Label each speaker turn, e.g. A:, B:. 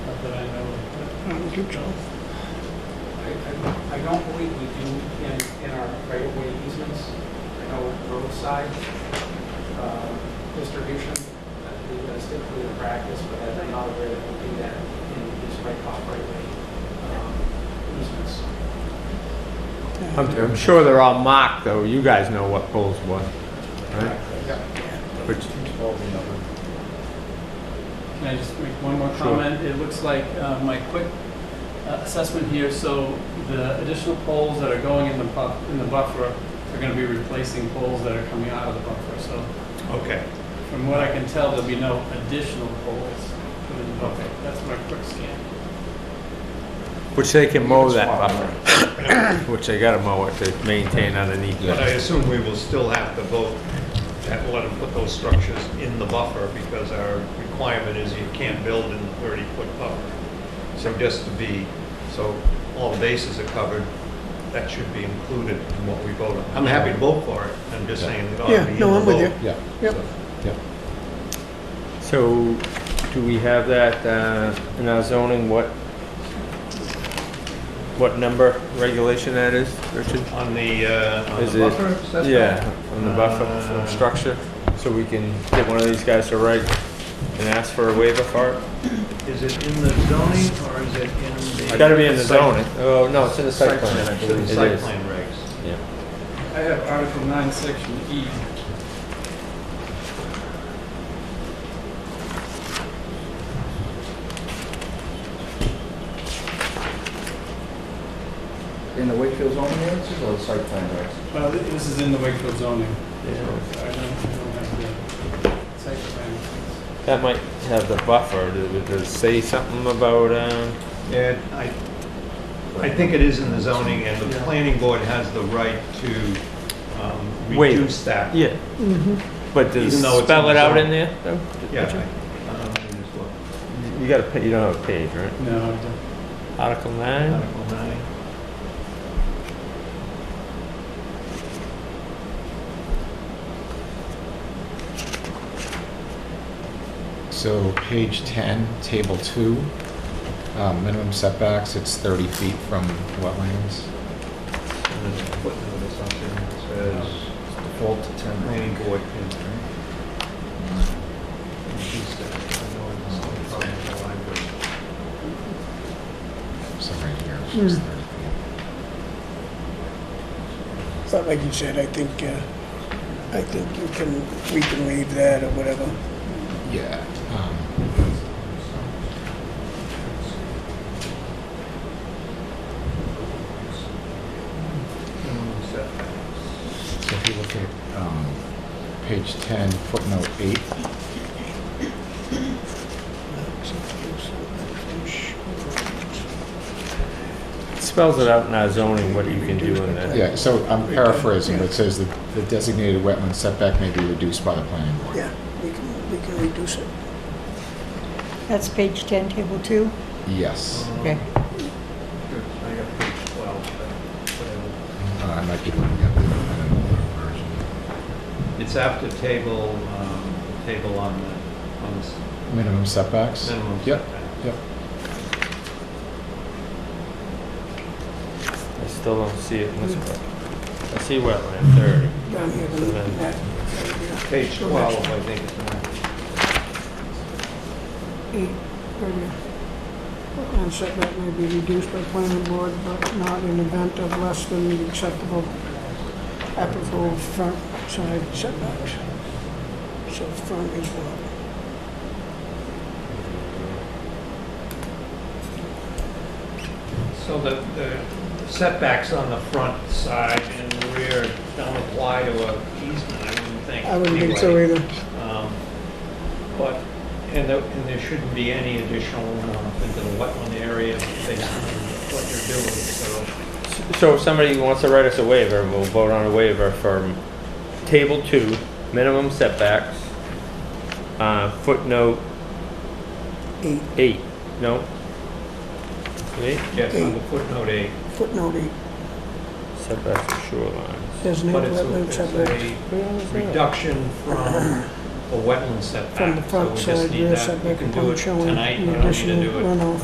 A: you, John.
B: I- I I don't believe we do in, in our right-of-way easements, I know roadside uh, distribution, I believe that's typically the practice, but I'm not aware that we do that in these right-off right-of-way um, easements.
C: I'm, I'm sure they're all marked, though. You guys know what poles what, right? Which,
D: Can I just make one more
C: Sure.
D: comment? It looks like uh, my quick uh, assessment here, so the additional poles that are going in the buff, in the buffer are going to be replacing poles that are coming out of the buffer. So
C: okay.
D: from what I can tell, there'll be no additional poles within the buffer. That's my quick scan.
C: Which they can mow that buffer, which they gotta mow it to maintain underneath
E: But I
C: that.
E: assume we will still have to vote and let them put those structures in the buffer because our requirement is you can't build in the 30-foot buffer. So just to be, so all bases are covered, that should be included in what we vote on. I'm happy to vote for it, I'm just saying that ought to
A: Yeah,
E: be in the
A: no, I'm with you.
E: vote.
F: Yeah,
A: Yep.
C: So, do we have that, uh, in our zoning, what, what number regulation that is, Richard?
E: On the, uh, on
C: Is
E: the
C: it-
E: buffer, assessment?
C: Yeah, on the buffer
E: Uh,
C: for structure, so we can get one of these guys to write and ask for a waiver for it?
E: Is it in the zoning or is it in the?
C: It's gotta be in the
E: site-
C: zoning. Oh, no, it's in the site plan, I
E: It's in
C: believe.
E: the
C: It
E: site
C: is.
E: plan regs.
D: I have Article 9, Section E.
F: In the Wakefield's own variances or the site plan variances?
D: Well, thi- this is in the Wakefield zoning. So I don't I don't have the site plan.
C: That might have the buffer, does it- does it say something about, um,
E: Yeah, I, I think it is in the zoning, and the planning board has the right to um,
C: Waive.
E: reduce that.
C: yeah. But does
E: Even though
C: it
E: it's
C: spell
E: in
C: it out
E: zone.
C: in there? though?
E: Yeah. I- um, let me just look.
C: You gotta, pa- you don't have a page, right?
D: No, I don't.
C: Article nine?
E: Article nine.
F: So page 10, table 2, um, minimum setbacks, it's 30 feet from wetlands.
E: And there's a footnote or something that says
F: Default to 10.
E: planning board can. reduce that. uh, I know it's not a problem in the library.
F: So right here, it's just 30 feet.
A: But like you said, I think, uh, I think you can, we can leave that or whatever.
F: Yeah. um,
E: um, Minimum setbacks.
F: So if you look at um, page 10, footnote 8,
C: It Spells it out in our zoning, what you can do in there.
F: yeah, so I'm paraphrasing, but it says that the designated wetland setback may be reduced by the planning board.
A: Yeah, we can, we can reduce it.
G: That's page 10, table 2.
F: Yes.
E: Um,
G: Okay.
E: good. I got page 12, but whatever.
F: Uh, I might be looking at the I don't know what version.
E: uh, It's after table, um, the table on the, on the s-
F: Minimum setbacks?
E: minimum
F: Yep,
E: setback.
F: yep.
C: I still don't see it in this book. I see wetland thirty.
A: Down here,
C: So then-
A: that,
E: Page 12, I think. is the one.
H: eight, right here. Wetland setback may be reduced by planning board, but not in event of less than the acceptable applicable front side setbacks.
A: so front is what?
E: So the the setbacks on the front side and rear don't apply to a easement, I wouldn't think.
A: I wouldn't think so
E: anyway.
A: either.
E: Um, But, and there, and there shouldn't be any additional runoff into the wetland area based on what you're doing, so.
C: So if somebody wants to write us a waiver, we'll vote on a waiver from table two, minimum setbacks, uh, footnote
A: Eight,
C: eight, no? Eight,
E: Yes, on the footnote eight.
A: footnote eight,
C: setbacks of shorelines.
E: But
A: designated
E: it's a-
A: wetland
E: it's
A: setback.
E: a
C: Where is that?
E: reduction from the wetland setback.
A: From the front
E: So we just
A: side
E: need
A: rear
E: that. You
A: setback
E: can do
A: upon
E: it
A: showing
E: tonight. You
A: an
E: don't need to
A: additional
E: do it
A: runoff